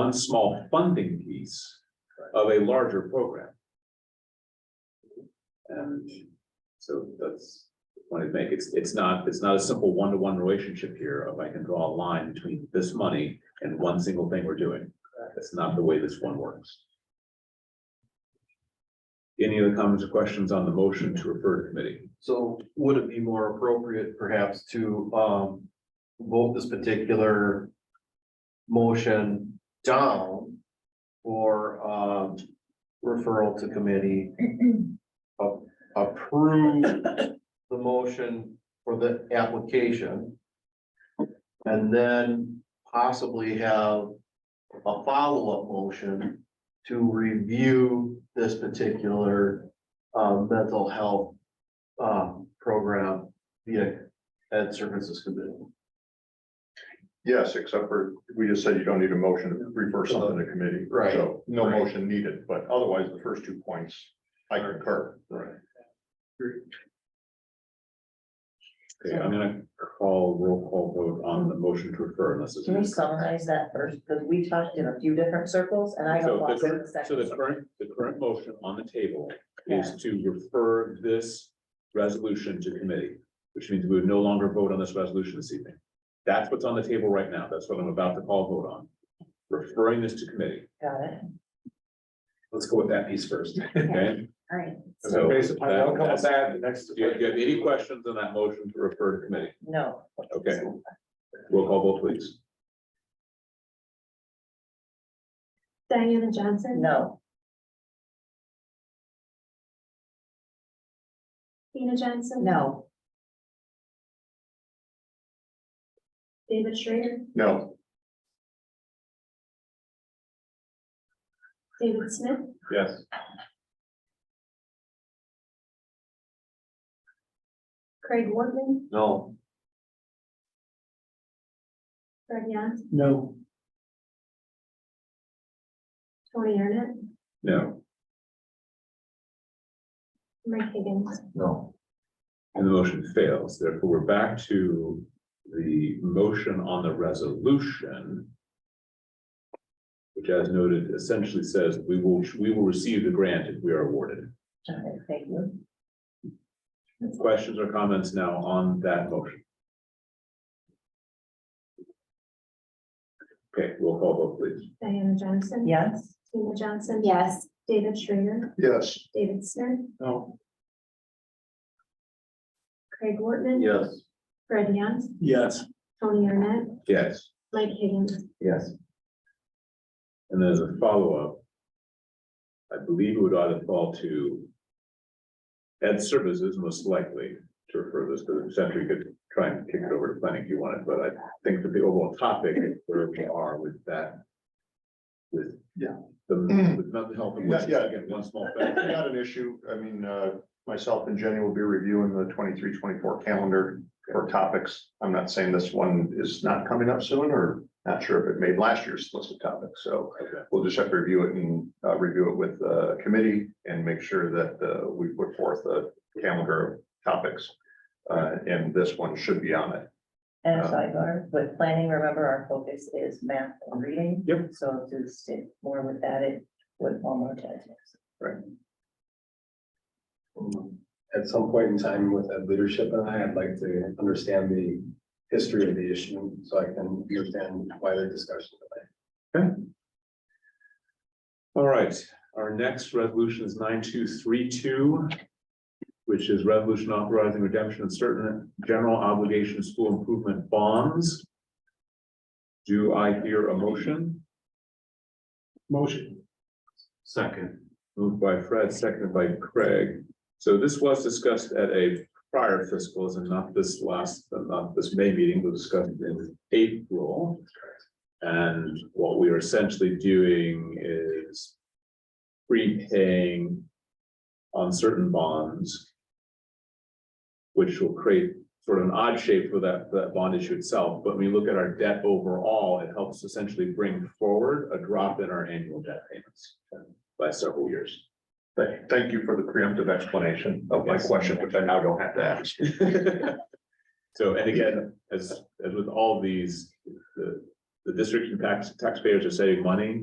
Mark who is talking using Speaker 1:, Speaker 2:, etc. Speaker 1: one small funding piece of a larger program. And so that's the point I'd make. It's, it's not, it's not a simple one-to-one relationship here of I can draw a line between this money and one single thing we're doing. That's not the way this one works. Any other comments or questions on the motion to refer to committee?
Speaker 2: So would it be more appropriate perhaps to um vote this particular motion down for um referral to committee? a- Approve the motion for the application. And then possibly have a follow-up motion to review this particular um mental health um, program via Ed Services Committee.
Speaker 3: Yes, except for, we just said you don't need a motion to refer something to committee.
Speaker 2: Right.
Speaker 3: So no
Speaker 2: Right.
Speaker 3: motion needed, but otherwise the first two points, I concur.
Speaker 2: Right.
Speaker 1: Okay, I'm gonna call roll call vote on the motion to refer unless it's.
Speaker 4: Can we summarize that first? Because we talked in a few different circles and I
Speaker 1: So
Speaker 4: got
Speaker 1: the
Speaker 4: lost in
Speaker 1: current, so
Speaker 4: the second.
Speaker 1: the current, the current motion on the table is to refer this resolution to committee, which means we would no longer vote on this resolution this evening. That's what's on the table right now. That's what I'm about to call vote on. Referring this to committee.
Speaker 4: Got it.
Speaker 1: Let's go with that piece first, okay?
Speaker 4: All right.
Speaker 1: So
Speaker 5: Based upon the outcome of
Speaker 1: that's-
Speaker 5: that, the next.
Speaker 1: Do you do you have any questions on that motion to refer to committee?
Speaker 4: No.
Speaker 1: Okay. Roll call vote, please.
Speaker 6: Diana Johnson.
Speaker 4: No.
Speaker 6: Tina Johnson.
Speaker 4: No.
Speaker 6: David Schrader,
Speaker 3: No,
Speaker 6: David Smith,
Speaker 3: yes,
Speaker 6: Craig Wortman,
Speaker 2: No.
Speaker 6: Greg Young,
Speaker 2: No.
Speaker 6: Tony Arnett,
Speaker 1: No,
Speaker 6: Mike Higgins.
Speaker 2: No.
Speaker 1: and the motion fails. Therefore, we're back to the motion on the resolution. Which as noted essentially says, we will, we will receive the grant if we are awarded.
Speaker 4: All right, Thank you.
Speaker 1: Questions or comments now on that motion? Okay, roll call vote, please.
Speaker 6: Diana Johnson.
Speaker 4: Yes.
Speaker 6: Tina Johnson. Yes. David Schrader,
Speaker 3: yes.
Speaker 6: David Smith,
Speaker 5: No.
Speaker 6: Craig Wortman.
Speaker 2: Yes.
Speaker 6: Greg Young,
Speaker 5: Yes.
Speaker 6: Tony Arnett,
Speaker 1: Yes.
Speaker 6: Mike Higgins.
Speaker 2: Yes.
Speaker 1: And then as a follow-up. I believe it would either fall to. Ed services most likely to refer this to the center. You could try and kick it over to planning if you wanted, but I think that the overall topic is where we are with that. With.
Speaker 3: Yeah. Mm.
Speaker 1: The, with mental health, and which is
Speaker 3: Yeah, yeah.
Speaker 1: again, one small
Speaker 3: But
Speaker 1: thing.
Speaker 3: Not an issue. I mean, uh, myself and Jenny will be reviewing the 23-24 calendar for topics. I'm not saying this one is not coming up soon or not sure if it made last year's list of topics. So
Speaker 1: Okay.
Speaker 3: we'll just have to review it and, uh, review it with the committee and make sure that, uh, we put forth a calendar of topics. Uh, and this one should be on it.
Speaker 4: And a
Speaker 1: Uh,
Speaker 3: Um,
Speaker 4: sidebar, with planning, remember our focus is math and reading.
Speaker 1: Yep.
Speaker 4: So to stick more with that, it would almost touch
Speaker 5: At some point in time with that leadership and I, I'd like to understand the history of the issue so I can understand why they're discussing it.
Speaker 1: All right, our next resolution is nine two three two. Which is resolution authorizing redemption of certain general obligation school improvement bonds. Do I hear a motion?
Speaker 5: Motion.
Speaker 2: Second.
Speaker 1: Moved by Fred, seconded by Craig. So this was discussed at a prior fiscal, and not this last, not this May meeting, but discussed in April. And what we are essentially doing is prepaying on certain bonds, which will create sort of an odd shape for that, for that bond issue itself. But when we look at our debt overall, it helps essentially bring forward a drop in our annual debt payments by several years.
Speaker 3: Thank, thank you for the preemptive explanation of my
Speaker 1: Yes.
Speaker 3: question, which I now don't have to ask.
Speaker 1: So, and again, as, as with all these, the, the district and tax, taxpayers are saving money